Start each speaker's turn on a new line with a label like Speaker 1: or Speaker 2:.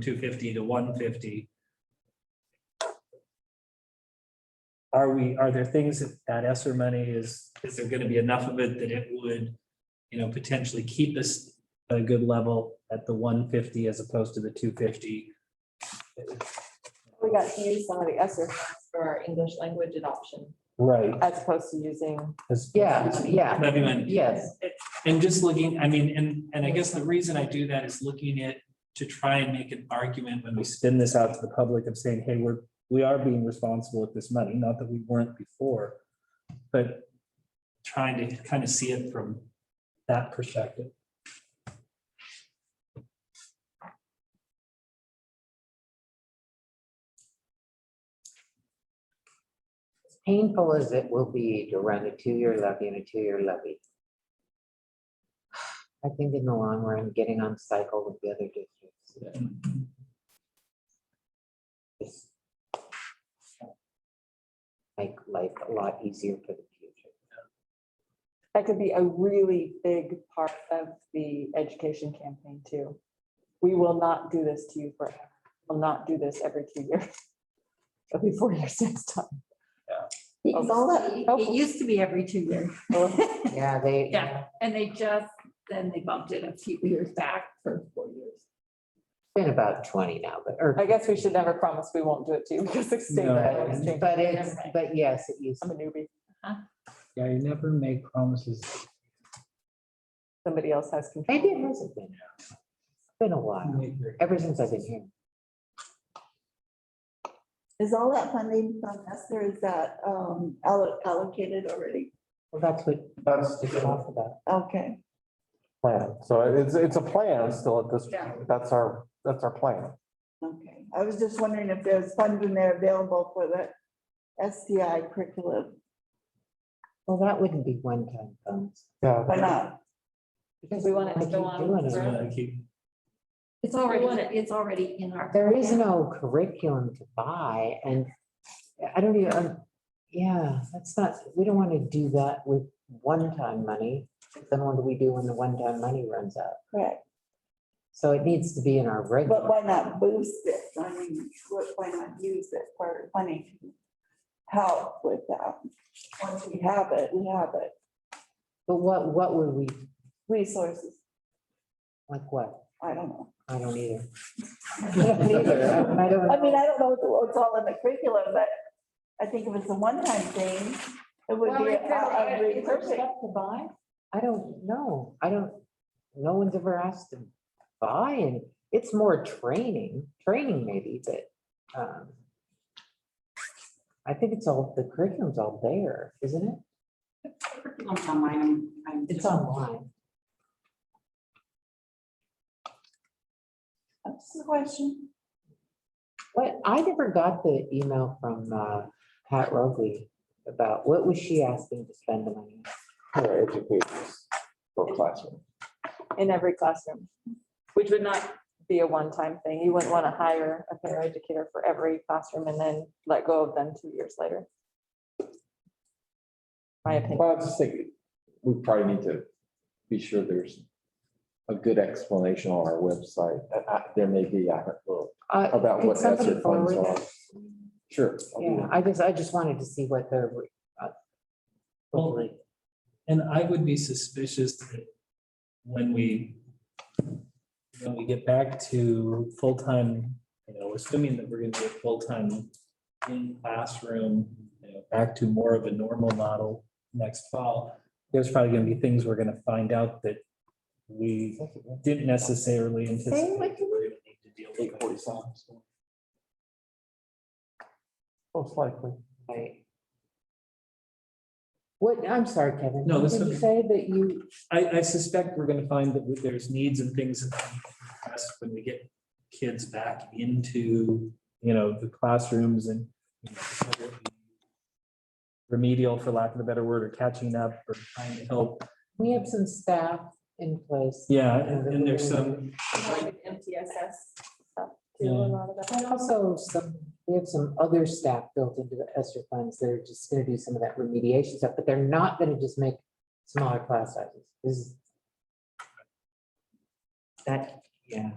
Speaker 1: two fifty to one fifty. Are we, are there things that that Esser money is, is there gonna be enough of it that it would, you know, potentially keep us at a good level at the one fifty as opposed to the two fifty?
Speaker 2: We got to use some of the ESSER funds for our English language adoption
Speaker 1: Right.
Speaker 2: as opposed to using.
Speaker 3: Yeah, yeah, yes.
Speaker 1: And just looking, I mean, and, and I guess the reason I do that is looking at, to try and make an argument when we spin this out to the public of saying, hey, we're, we are being responsible with this money, not that we weren't before. But trying to kind of see it from that perspective.
Speaker 3: As Painful as it will be to run a two-year levy and a two-year levy. I think in the long run, getting on cycle with the other districts. is Make life a lot easier for the future.
Speaker 2: That could be a really big part of the education campaign too. We will not do this to you forever. We'll not do this every two years. It'll be four years next time.
Speaker 4: Because all that, it used to be every two years.
Speaker 3: Yeah, they,
Speaker 4: Yeah. And they just, then they bumped it a few years back for four years.
Speaker 3: been about twenty now, but, or,
Speaker 2: I guess we should never promise we won't do it to you because the state.
Speaker 1: No.
Speaker 2: law is changing.
Speaker 3: but it's, but yes, it used,
Speaker 2: I'm a newbie.
Speaker 1: Yeah, you never make promises.
Speaker 2: Somebody else has control.
Speaker 3: maybe it hasn't been. It's Been a while, ever since I've been here.
Speaker 5: Is all that funding from Esther, is that um, allo- allocated already?
Speaker 3: Well, that's what
Speaker 6: That's,
Speaker 3: it's all about.
Speaker 5: Okay,
Speaker 6: plan, so it's, it's a plan still at this,
Speaker 5: Yeah.
Speaker 6: that's our, that's our plan.
Speaker 5: okay. I was just wondering if there's funding there available for the STI curriculum
Speaker 3: Well, that wouldn't be one-time funds.
Speaker 6: Yeah.
Speaker 5: or not.
Speaker 3: Because
Speaker 2: We want it to go
Speaker 3: I keep
Speaker 2: on
Speaker 3: doing it.
Speaker 2: forever.
Speaker 4: It's already, it's already in our.
Speaker 3: There is no curriculum to buy and I don't even, um, yeah, that's not, we don't want to do that with one-time money. Then what do we do when the one-time money runs out?
Speaker 5: Correct.
Speaker 3: So it needs to be in our
Speaker 5: But
Speaker 3: regular.
Speaker 5: why not boost it? I mean, what- why not use it for funding? to Help with that. Once we have it, we have it.
Speaker 3: But what, what would we,
Speaker 5: Resources,
Speaker 3: like what?
Speaker 5: I don't know.
Speaker 3: I don't either. I don't I don't-
Speaker 5: I mean, I don't know what the- what's all in the curriculum, but I think if it's a one-time thing, it would be. a- a repurposing.
Speaker 4: to buy?
Speaker 3: I don't know. I don't, no one's ever asked to buy and it's more training, training maybe, but um. I think it's all, the curriculum's all there, isn't it?
Speaker 4: It's online, I'm, I'm.
Speaker 3: It's online.
Speaker 5: That's the question.
Speaker 3: But I never got the email from uh Pat Rogley about what was she asking to spend the money? on?
Speaker 6: For educators, for classroom.
Speaker 2: in every classroom, which would not be a one-time thing. You wouldn't want to hire a paraeducator for every classroom and then let go of them two years later. My opinion.
Speaker 6: Well, I just think we probably need to be sure there's a good explanation on our website. Uh, uh, There may be, I don't know,
Speaker 3: Uh,
Speaker 6: about
Speaker 3: could
Speaker 6: what
Speaker 3: somebody
Speaker 6: ESER funds
Speaker 3: forward
Speaker 6: are.
Speaker 3: that?
Speaker 6: Sure. I'll do
Speaker 3: Yeah,
Speaker 6: that.
Speaker 3: I guess I just wanted to see what their. uh,
Speaker 1: Well,
Speaker 3: hopefully-
Speaker 1: And I would be suspicious that when we, when we get back to full-time, you know, assuming that we're gonna be a full-time in classroom, you know, back to more of a normal model next fall, there's probably gonna be things we're gonna find out that we didn't necessarily anticipate.
Speaker 3: what
Speaker 1: we were gonna need to deal
Speaker 6: Eight
Speaker 1: with.
Speaker 6: forty-five. so. Most likely.
Speaker 3: Right. What, I'm sorry, Kevin.
Speaker 1: No,
Speaker 3: what
Speaker 1: that's
Speaker 3: Did you
Speaker 1: okay.
Speaker 3: say that you,
Speaker 1: I, I suspect we're gonna find that there's needs and things that we can address when we get kids back into, you know, the classrooms and you know, whether it be remedial, for lack of a better word, or catching up or trying to help.
Speaker 3: we have some staff in place?
Speaker 1: Yeah, and and there's some,
Speaker 2: MTSS.
Speaker 1: Yeah.
Speaker 3: And also some, we have some other staff built into the Esther funds that are just gonna do some of that remediation stuff, but they're not gonna just make smaller class sizes. This is. That, yeah,